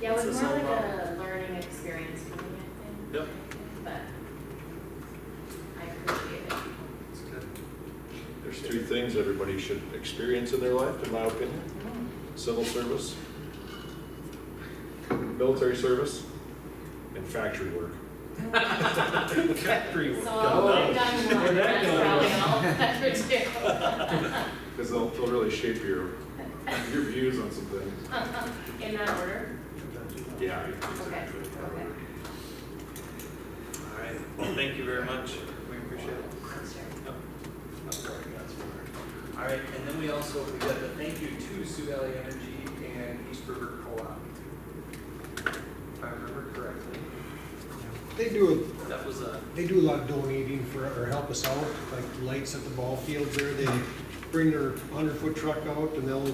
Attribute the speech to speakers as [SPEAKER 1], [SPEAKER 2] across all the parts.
[SPEAKER 1] Yeah, it
[SPEAKER 2] It's
[SPEAKER 1] was
[SPEAKER 2] the
[SPEAKER 1] more like
[SPEAKER 2] same
[SPEAKER 1] a learning experience for me, I think.
[SPEAKER 2] Yep.
[SPEAKER 1] But I appreciate it.
[SPEAKER 2] It's good.
[SPEAKER 3] There's two things everybody should experience in their life, in my opinion. Civil service, military service, and factory work.
[SPEAKER 2] Factory work.
[SPEAKER 1] So
[SPEAKER 2] Got
[SPEAKER 1] I've
[SPEAKER 2] that.
[SPEAKER 1] done one, that's probably all that would do.
[SPEAKER 3] Because they'll, they'll really shape your, your views on some things.
[SPEAKER 1] Oh. In that order?
[SPEAKER 3] Yeah, exactly.
[SPEAKER 1] okay.
[SPEAKER 2] All right, well, thank you very much. We appreciate it. I'm sorry, that's fine. All right, and then we also, we got the thank you to Sioux Valley Energy and East River Co-op. If I remember correctly,
[SPEAKER 4] They do,
[SPEAKER 2] that was a,
[SPEAKER 4] they do a lot of donating for, or help us out, like the lights at the ball fields there, they bring their hundred foot truck out and they'll,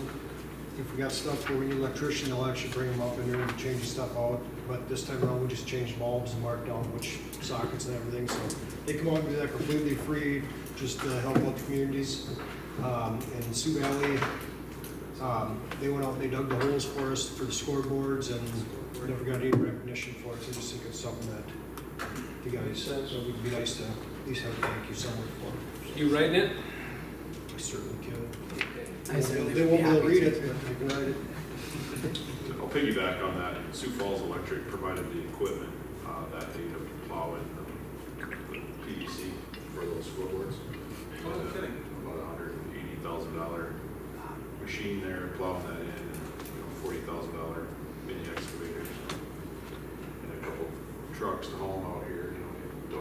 [SPEAKER 4] if we got stuff where we need electrician, they'll actually bring them up in there and change the stuff out. But this time around, we just changed bulbs and marked down which sockets and everything, so they come out and do that completely free, just to help out the communities. Um, and Sioux Valley, um, they went out, and they dug the holes for us for the scoreboards and we never got any recognition for it, so I just think it's something that you guys, so it would be nice to at least have a thank you somewhere for it.
[SPEAKER 5] You writing it?
[SPEAKER 4] I certainly can.
[SPEAKER 6] I certainly
[SPEAKER 4] They
[SPEAKER 6] would
[SPEAKER 4] won't
[SPEAKER 6] be happy
[SPEAKER 4] be able to read
[SPEAKER 6] to.
[SPEAKER 4] it, but they can write it.
[SPEAKER 3] I'll piggyback on that. Sioux Falls Electric provided the equipment uh, that they have to plow in the PVC for those floorboards.
[SPEAKER 2] oh, no kidding.
[SPEAKER 3] About a hundred and eighty thousand dollar machine there plowing that in, and, you know, forty thousand dollar mini excavators. And a couple trucks to haul them out here, you know,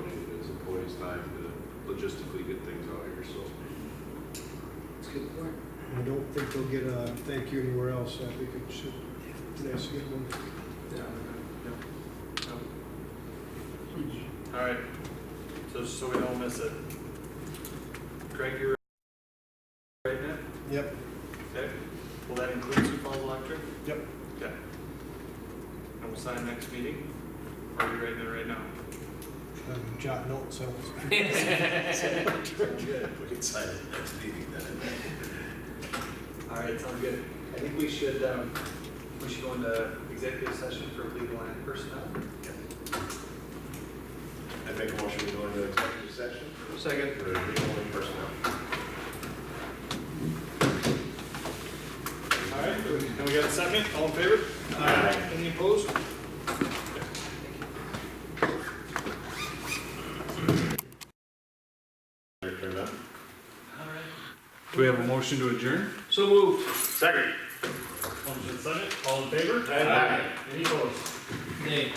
[SPEAKER 3] donated his employees time to logistically get things out here, so.
[SPEAKER 6] It's good work.
[SPEAKER 4] I don't think they'll get a thank you anywhere else, I think it should, nice to get one.
[SPEAKER 2] Yeah, no, no. All right, so, just so we don't miss it. Greg, you're right now?
[SPEAKER 4] Yep,
[SPEAKER 2] Okay, will that include Sioux Falls Electric?
[SPEAKER 4] yep,
[SPEAKER 2] Okay. And we'll sign next meeting, or are we writing it right now?
[SPEAKER 4] I'm jotting notes, so.
[SPEAKER 7] We can sign it next meeting then.
[SPEAKER 2] All right, sounds good. I think we should, um, we should go into executive session for legal and personnel.
[SPEAKER 7] I make a motion to go into executive session
[SPEAKER 2] Second.
[SPEAKER 7] for legal and personnel.
[SPEAKER 2] All right, and we got a second, all in favor? Aye. Any opposed?
[SPEAKER 8] Do we have a motion to adjourn?
[SPEAKER 2] So moved.
[SPEAKER 7] Second.
[SPEAKER 2] All in favor? Aye. Any opposed?
[SPEAKER 5] Nate.